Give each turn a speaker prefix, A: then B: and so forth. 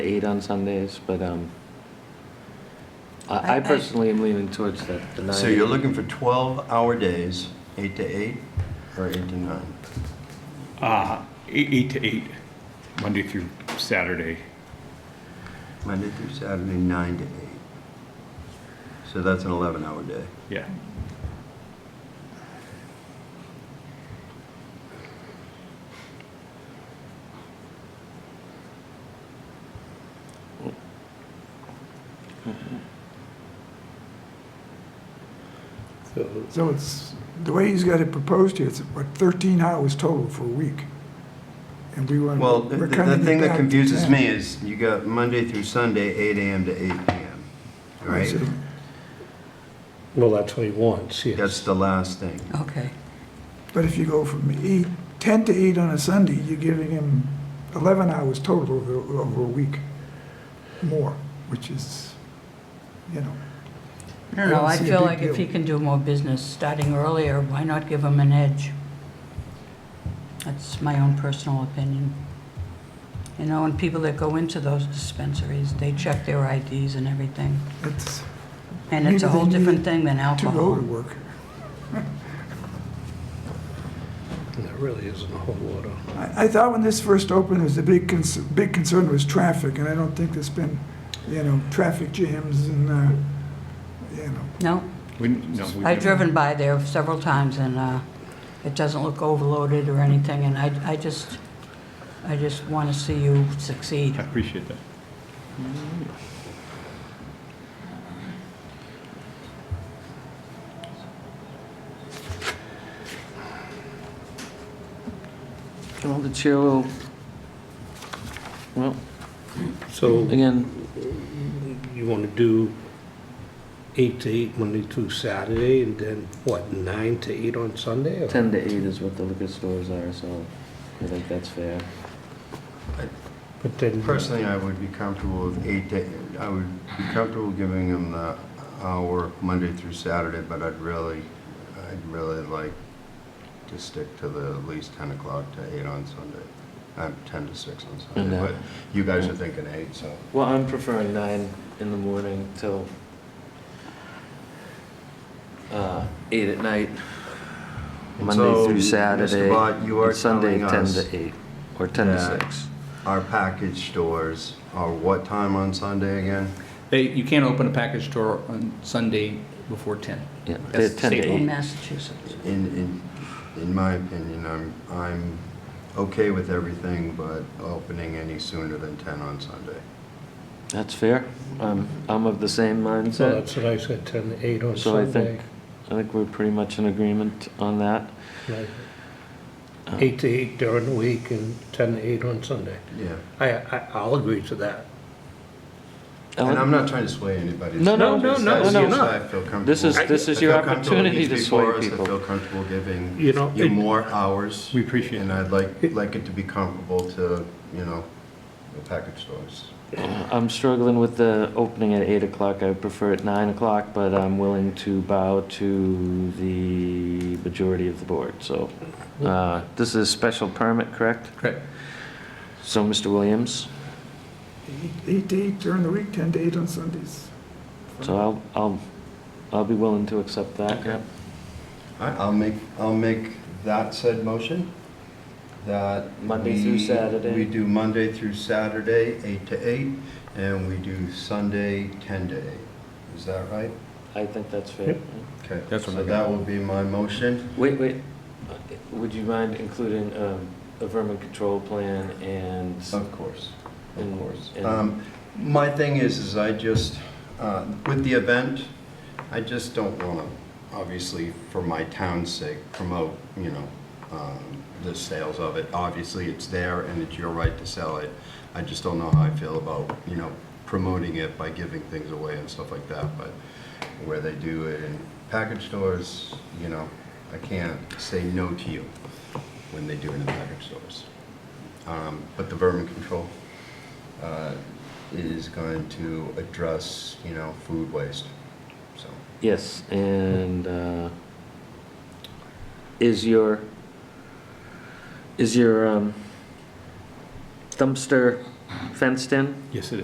A: eight on Sundays, but um,
B: I-
A: I
B: I-
A: I personally am leaning towards the the nine.
C: So you're looking for 12-hour days, 8 to 8 or 8 to 9?
D: Uh, eight, eight to eight, Monday through Saturday.
C: Monday through Saturday, 9 to 8. So that's an 11-hour day.
D: Yeah.
E: So it's, the way he's got it proposed here, it's what, 13 hours total for a week? And we want,
C: Well, the
E: we're
C: the- the
E: cutting
C: thing
E: it
C: that
E: back to
C: confuses
E: 10.
C: me is you got Monday through Sunday, 8 AM to 8 PM, right?
E: So
F: Well, that's what he wants, yes.
C: That's the last thing.
B: Okay.
E: But if you go from eight, 10 to 8 on a Sunday, you're giving him 11 hours total over, over a week more, which is, you know,
B: I don't know,
E: I don't
B: I
E: see a
B: feel
E: big
B: like if he
E: deal.
B: can do more business starting earlier, why not give him an edge? That's my own personal opinion. You know, and people that go into those dispensaries, they check their IDs and everything.
E: it's
B: And it's a
E: Maybe they
B: whole different
E: need
B: thing than
E: to go to
B: alcohol.
E: work.
F: And There really isn't a whole lot of,
E: I, I thought when this first opened, it was a big, cons- big concern was traffic, and I don't think there's been, you know, traffic jams and, uh, you know,
B: No,
D: We, no, we
B: I've
D: never-
B: driven by there several times and uh, it doesn't look overloaded or anything. And I, I just, I just want to see you succeed.
D: I appreciate that.
A: Well, the chair will, well,
F: so
A: again,
F: you want to do eight to eight Monday through Saturday, and then what, nine to eight on Sunday? or-
A: 10 to 8 is what the liquor stores are, so I think that's fair.
F: But then,
C: Personally, I would be comfortable with 8 to, I would be comfortable giving him the hour Monday through Saturday, but I'd really, I'd really like to stick to the at least 10 o'clock to 8 on Sunday. I'm 10 to 6 on Sunday,
A: And, uh,
C: but you guys are thinking 8, so.
A: Well, I'm preferring nine in the morning till uh, eight at night,
C: And
A: Monday
C: so,
A: through
C: Mr.
A: Saturday.
C: Bott, you are
A: and Sunday,
C: telling
A: 10
C: us
A: to 8, or 10 to
C: that-
A: 6.
C: Our package stores are what time on Sunday again?
G: They, you can't open a package store on Sunday before 10.
A: Yeah, they're
G: That's
A: 10 to
G: staple.
B: In
A: 8.
B: Massachusetts.
C: In, in, in my opinion, I'm, I'm okay with everything, but opening any sooner than 10 on Sunday.
A: That's fair. Um, I'm of the same
F: so
A: mindset.
F: that's what I said, ten to eight on
A: So I
F: Sunday.
A: think- I think we're pretty much in agreement on that.
F: right?
A: Um,
F: Eight to eight during the week and ten to eight on Sunday.
C: Yeah.
F: I, I, I'll agree to that.
C: And I'm not trying to sway anybody.
A: No, no,
C: It's
F: no,
C: just
F: no,
C: that's
A: no,
C: just
A: no.
C: I feel comfortable.
A: This is- this is
C: I
A: your
C: feel comfortable with
A: opportunity to
C: these
A: sway
C: before us.
A: people.
C: I feel comfortable giving
F: You know,
C: you
F: it-
C: more hours.
D: We appreciate
C: And I'd like, like it to be comparable to, you know, the package stores.
A: Uh, I'm struggling with the opening at eight o'clock. I prefer at nine o'clock, but I'm willing to bow to the majority of the board, so. Uh, this is special permit, correct?
G: Correct.
A: So, Mr. Williams,
E: Eight- Eight to eight during the week, 10 to eight on Sundays.
A: so I'll, I'll, I'll be willing to accept that.
G: Okay.
C: All right, I'll make, I'll make that said motion, that.
A: Monday through
C: we-
A: Saturday.
C: We do Monday through Saturday, 8 to 8, and we do Sunday, 10 to 8. Is that right?
A: I think that's fair.
C: Okay.
D: That's what
C: So
D: I got.
C: that will be my motion.
A: Wait, wait, Uh, would you mind including, um, a vermin control plan and?
C: Of course, of
A: And-
C: course.
A: and-
C: Um, My thing is, is I just, uh, with the event, I just don't want to, obviously, for my town's sake, promote, you know, um, the sales of it. Obviously, it's there and it's your right to sell it. I just don't know how I feel about, you know, promoting it by giving things away and stuff like that, but where they do it in package stores, you know, I can't say no to you when they do it in package stores. Um, But the vermin control uh, is going to address, you know, food waste, so.
A: Yes, and uh, is your, is your um, dumpster
H: fenced in?
A: Yes, it is.